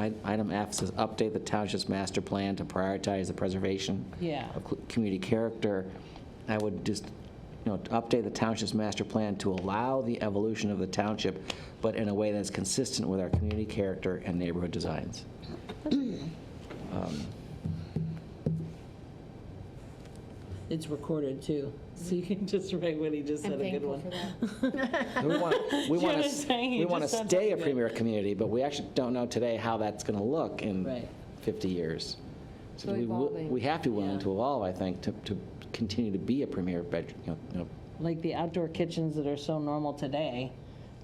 I- item F says, update the township's master plan to prioritize the preservation Yeah. of cl- community character. I would just, you know, update the township's master plan to allow the evolution of the township, but in a way that's consistent with our community character and neighborhood designs. It's recorded too, so you can just write what he just I'm said, a good thankful one. for that. We want, we You want to, understand? You we want to just said stay a something. premier community, but we actually don't know today how that's going to look in Right. 50 years. So we wi- evolving. We have to be willing Yeah. to evolve, I think, to, to continue to be a premier bed, you know, you know, Like the outdoor kitchens that are so normal today,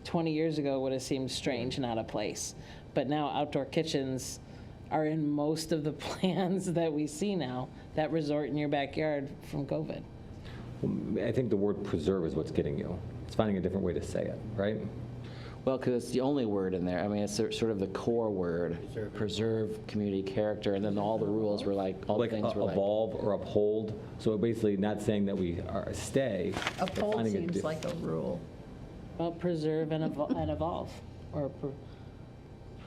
20 years ago would have seemed strange and out of place. But now outdoor kitchens are in most of the plans that we see now, that resort in your backyard from COVID. I think the word preserve is what's getting you. It's finding a different way to say it, right? Well, because it's the only word in there. I mean, it's sor- sort of the core word. Preserve community character, and then all the rules were like, all the Like things uh, were like. evolve or uphold. So basically, not saying that we are stay. but Uphold finding a seems diff- like a rule. Well, preserve and evol- and evolve, or pre-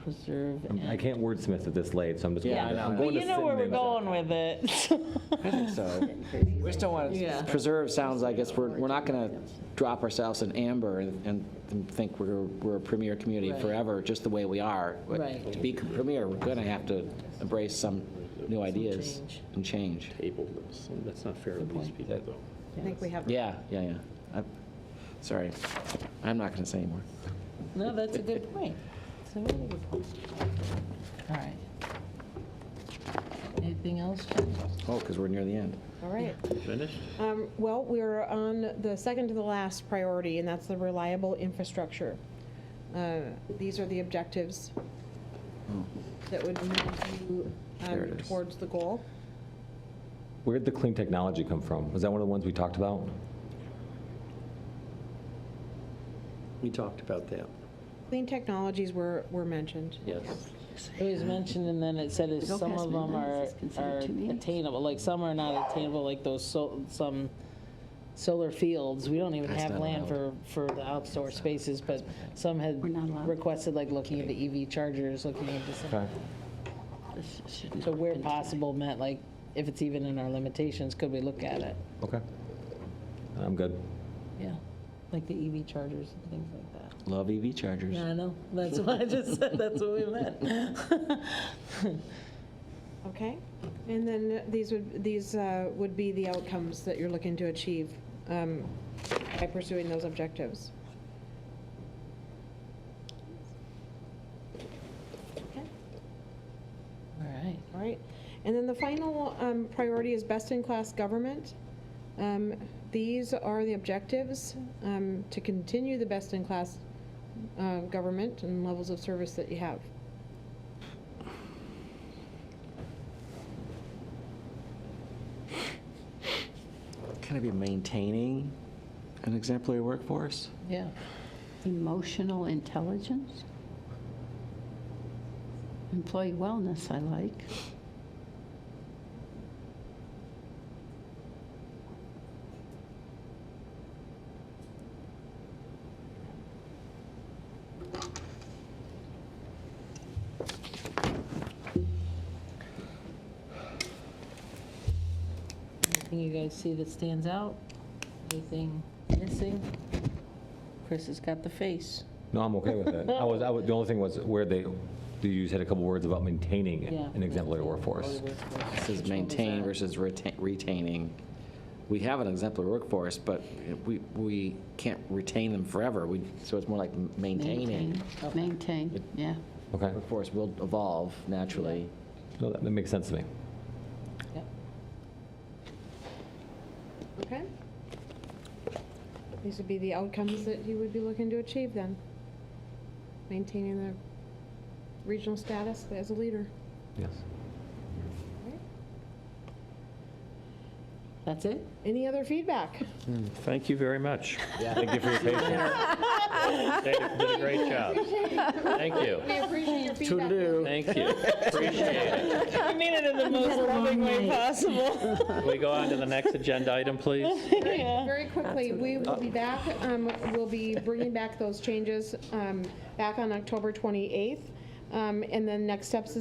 preserve and. I can't wordsmith at this late, so I'm just going. Yeah, I to- know. I'm But But going to you know where we're synonyms after. going with it. So, we just don't want Yeah. to, preserve sounds like it's, we're, we're not going to drop ourselves in amber and, and think we're, we're a premier community Right. forever, just the way we are. But Right. To be premier, we're going to have to embrace some new ideas change. and change. table this. That's not fair to these people, though. I think we have Yeah, yeah, yeah. I- Sorry, I'm not going to say anymore. No, that's a good point. It's a really good point. All right. Anything else, Jen? Oh, because we're near the end. All right. Finished? Um, Well, we're on the second to the last priority, and that's the reliable infrastructure. Uh, These are the objectives that would move you um, Hmm. There it is. towards the goal. Where did the clean technology come from? Was that one of the ones we talked about? We talked about that. Clean technologies were, were mentioned. Yes. It was mentioned, and then it said is Don't some pass of me them mine, are this is considered are two meetings. attainable, like some are not attainable, like those sol, some solar fields. We don't even That's have not land for, allowed. for the outdoor spaces, but some had We're not allowed. requested, like, looking into EV chargers, looking into some. Okay. This shouldn't So have where been tonight. possible meant, like, if it's even in our limitations, could we look at it? Okay. I'm good. Yeah, like the EV chargers and things like that. Love EV chargers. Yeah, I know. That's what I just said. That's what we meant. Okay? And then these would, these uh, would be the outcomes that you're looking to achieve um, by pursuing those objectives. Okay? All right. All right. And then the final um, priority is best-in-class government. Um, These are the objectives, um, to continue the best-in-class uh, government and levels of service that you have. Can I be maintaining an exemplary workforce? Yeah. Emotional intelligence? Employee wellness, I like. Anything you guys see that stands out? Anything missing? Chris has got the face. No, I'm okay with it. I was, I was, the only thing was where they, you said a couple words about maintaining Yeah. an exemplary workforce. It says maintain versus retain- retaining. We have an exemplary workforce, but we, we can't retain them forever. We, so it's more like maintaining. Maintain, Maintain, yeah. Okay. Workforce will evolve naturally. No, that that makes sense to me. Yep. Okay? These would be the outcomes that you would be looking to achieve then. Maintaining the regional status as a leader. Yes. That's it? Any other feedback? Thank you very much. Thank you for your patience. They did a great job. Thank you. I appreciate your feedback. Thank you. Appreciate it. I mean it in the most loving way possible. Can we go on to the next agenda item, please? Very quickly, we will be back, um, we'll be bringing back those changes um, back on October 28th. Um, And then next steps